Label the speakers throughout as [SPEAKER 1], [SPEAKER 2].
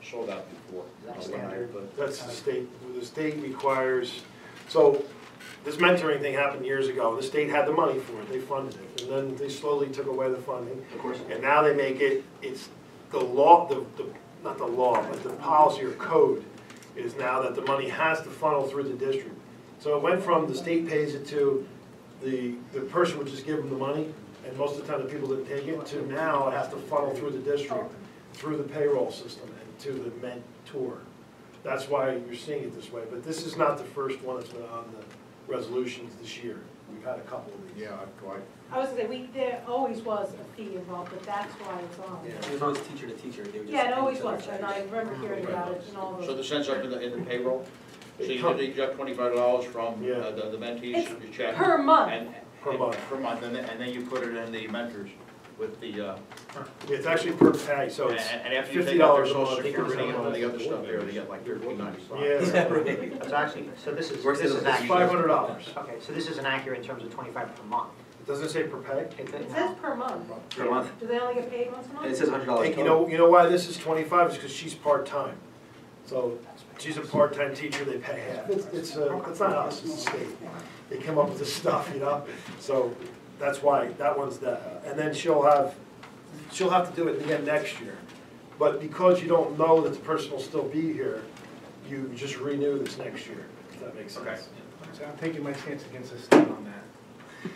[SPEAKER 1] showed up before.
[SPEAKER 2] That's
[SPEAKER 1] when I-
[SPEAKER 2] standard.
[SPEAKER 1] but-
[SPEAKER 3] That's the state, the state requires, so this mentoring thing happened years ago. The state had the money for it, they funded it, and then they slowly took away the funding.
[SPEAKER 2] Of course.
[SPEAKER 3] And now they make it, it's the law, the, the, not the law, but the policy or code is now that the money has to funnel through the district. So it went from the state pays it to the, the person would just give them the money, and most of the time the people didn't take it, to now it has to funnel through the district, through the payroll system and to the mentor. That's why you're seeing it this way, but this is not the first one that's been on the resolutions this year. We've had a couple of these.
[SPEAKER 1] Yeah, I- I,
[SPEAKER 4] I was gonna say, we, there always was a fee involved, but that's why it's
[SPEAKER 3] Yeah.
[SPEAKER 4] on.
[SPEAKER 5] It was always teacher to teacher, they would just.
[SPEAKER 4] Yeah, it always
[SPEAKER 5] pay each other
[SPEAKER 4] was, and I
[SPEAKER 5] charges.
[SPEAKER 4] remember hearing about it and all
[SPEAKER 1] so
[SPEAKER 4] the,
[SPEAKER 1] the sense up in the, in the payroll, so
[SPEAKER 3] It
[SPEAKER 1] you
[SPEAKER 3] come-
[SPEAKER 1] could deduct twenty-five dollars from
[SPEAKER 3] Yeah.
[SPEAKER 1] uh, the the mentees,
[SPEAKER 4] It's
[SPEAKER 1] your check.
[SPEAKER 4] per month.
[SPEAKER 1] and-
[SPEAKER 3] Per
[SPEAKER 1] and-
[SPEAKER 3] month.
[SPEAKER 1] Per month, and then, and then you put it in the mentors with the, uh,
[SPEAKER 3] It's actually per pay, so
[SPEAKER 1] and
[SPEAKER 3] it's.
[SPEAKER 1] and after you take out their
[SPEAKER 3] $50 a
[SPEAKER 1] social
[SPEAKER 3] month, I think it was
[SPEAKER 1] security and all
[SPEAKER 3] something
[SPEAKER 1] the
[SPEAKER 3] like
[SPEAKER 1] other stuff there, they get like thirteen ninety-five.
[SPEAKER 3] Yeah.
[SPEAKER 5] Yeah, right.
[SPEAKER 2] It's actually, so this is,
[SPEAKER 5] Works
[SPEAKER 2] this
[SPEAKER 5] in
[SPEAKER 2] is
[SPEAKER 5] the-
[SPEAKER 3] It's
[SPEAKER 2] accurate.
[SPEAKER 3] five hundred dollars.
[SPEAKER 2] Okay, so this isn't accurate in terms of twenty-five per month.
[SPEAKER 3] It doesn't say per pay.
[SPEAKER 2] It could-
[SPEAKER 4] It says per month.
[SPEAKER 5] Per month,
[SPEAKER 4] Do they only get paid once a
[SPEAKER 5] and it
[SPEAKER 4] month?
[SPEAKER 5] says hundred dollars
[SPEAKER 1] oh.
[SPEAKER 3] And you
[SPEAKER 5] total.
[SPEAKER 3] know, you know why this is twenty-five, is because she's part-time. So she's a part-time teacher, they pay half. It's, it's, uh, it's not us, it's the state. They come up with this stuff, you know? So that's why, that one's the, and then she'll have, she'll have to do it again next year. But because you don't know that the person will still be here, you just renew this next year, if that makes
[SPEAKER 1] Okay.
[SPEAKER 3] sense.
[SPEAKER 6] So I'm taking my chance against the state on that.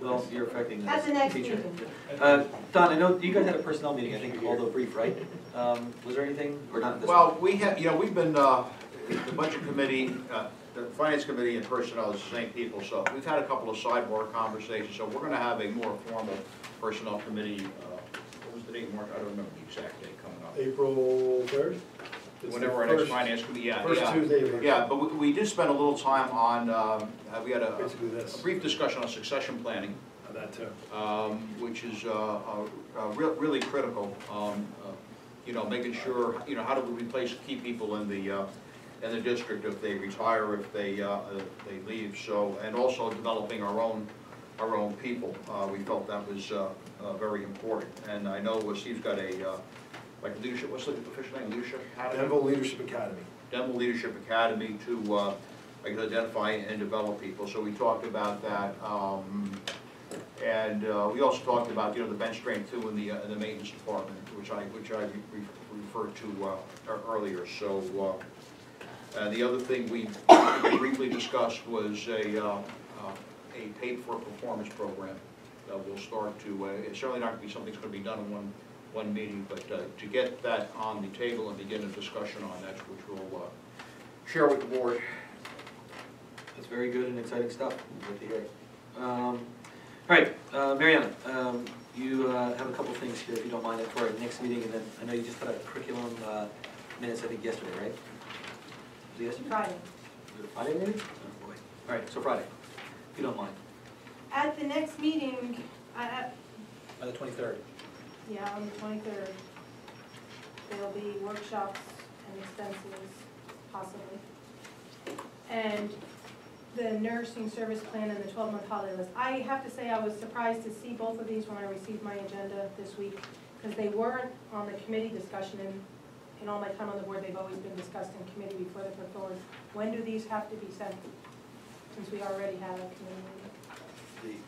[SPEAKER 5] Well, you're affecting the teacher.
[SPEAKER 4] That's the next meeting.
[SPEAKER 5] Uh, Don, I know you guys had a personnel meeting, I think, although brief, right? Um, was there anything, or not this?
[SPEAKER 1] Well, we have, you know, we've been, uh, the budget committee, uh, the finance committee and personnel is the same people, so we've had a couple of sidebar conversations, so we're gonna have a more formal personnel committee, uh, what was the date, Mark? I don't remember the exact date coming up.
[SPEAKER 3] April third?
[SPEAKER 1] Whenever our next finance committee, yeah,
[SPEAKER 3] First
[SPEAKER 1] yeah.
[SPEAKER 3] Tuesday of April.
[SPEAKER 1] Yeah, but we, we did spend a little time on, um, uh, we had a
[SPEAKER 3] Basically
[SPEAKER 1] a
[SPEAKER 3] this,
[SPEAKER 1] brief discussion on succession planning,
[SPEAKER 3] on that too.
[SPEAKER 1] um, which is uh, uh, uh, real- really critical. um, uh, You know, making sure, you know, how do we replace key people in the, uh, in the district if they retire, if they, uh, if they leave, so, and also developing our own, our own people. Uh, We felt that was uh, uh, very important. And I know uh, Steve's got a, uh, like leadership, what's the official name, leadership? academy?
[SPEAKER 3] Denville Leadership Academy.
[SPEAKER 1] Dental Leadership Academy to, uh, I guess, identify and develop people, so we talked about that. um, And uh, we also talked about, you know, the bench strength too in the, uh, in the maintenance department, which I, which I re- re- referred to uh, ear- earlier, so. uh, uh, The other thing we briefly discussed was a, uh, uh, a paid-for-performance program that we'll start to, uh, it's certainly not gonna be something that's gonna be done in one, one meeting, but uh, to get that on the table and begin a discussion on that, which we'll uh, share with the board.
[SPEAKER 5] That's very good and exciting stuff, good to hear. Um, all right, uh, Mariana, um, you, uh, have a couple things here, if you don't mind, for our next meeting, and then, I know you just put out curriculum, uh, minutes, I think yesterday, right? Was it yesterday?
[SPEAKER 4] Friday.
[SPEAKER 5] Was it Friday maybe? Oh, boy. All right, so Friday, if you don't mind,
[SPEAKER 4] At the next meeting, I, I,
[SPEAKER 5] by the twenty-third.
[SPEAKER 4] yeah, on the twenty-third, there'll be workshops and expenses possibly. And the nursing service plan and the twelve-month holiday list. I have to say, I was surprised to see both of these when I received my agenda this week, because they weren't on the committee discussion, and in all my time on the board, they've always been discussed in committee before they're put forward. When do these have to be sent, since we already have a committee meeting?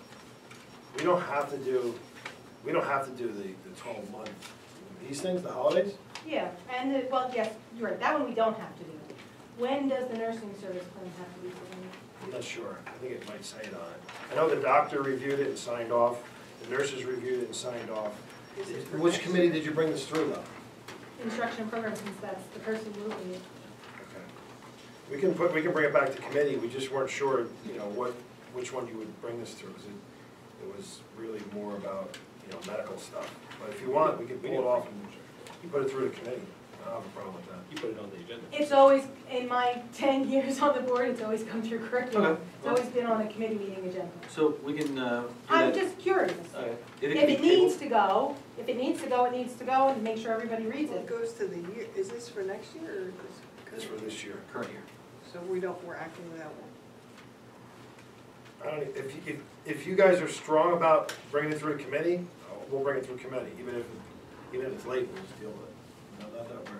[SPEAKER 3] the, we don't have to do, we don't have to do the, the twelve month, these things, the holidays?
[SPEAKER 4] Yeah, and, the- well, yes, you're right, that one we don't have to do. When does the nursing service plan have to be submitted?
[SPEAKER 3] I'm not sure, I think it might say it on it. I know the doctor reviewed it and signed off, the nurses reviewed it and signed off. Which committee did you bring this through though?
[SPEAKER 4] Instruction program, since that's the person moving it.
[SPEAKER 3] We can put, we can bring it back to committee, we just weren't sure, you know, what, which one you would bring this through, 'cause it, it was really more about, you know, medical stuff. But if you want, we can pull it off and you put it through the committee, I don't have a problem with that.
[SPEAKER 6] You put it on the agenda.
[SPEAKER 4] It's always, in my ten years on the board, it's always come through curriculum.
[SPEAKER 5] Okay.
[SPEAKER 4] It's always been on a committee meeting agenda.
[SPEAKER 5] So we can, uh, do
[SPEAKER 4] I'm
[SPEAKER 5] that.
[SPEAKER 4] just curious.
[SPEAKER 5] All right. can
[SPEAKER 4] If
[SPEAKER 5] be
[SPEAKER 4] Uh, it needs
[SPEAKER 5] tabled-
[SPEAKER 4] to go, if it needs to go, it needs to go, and make sure everybody reads
[SPEAKER 7] Well, it
[SPEAKER 4] it.
[SPEAKER 7] goes to the year, is this for next year or is
[SPEAKER 3] It's
[SPEAKER 7] this?
[SPEAKER 3] for this year.
[SPEAKER 5] Current year.
[SPEAKER 7] So we don't, we're acting without one.
[SPEAKER 3] I don't, if, you- if, if you guys are strong about bringing it through committee, we'll bring it through committee, even if, even if it's late, we'll just deal with it. No, Not that we're-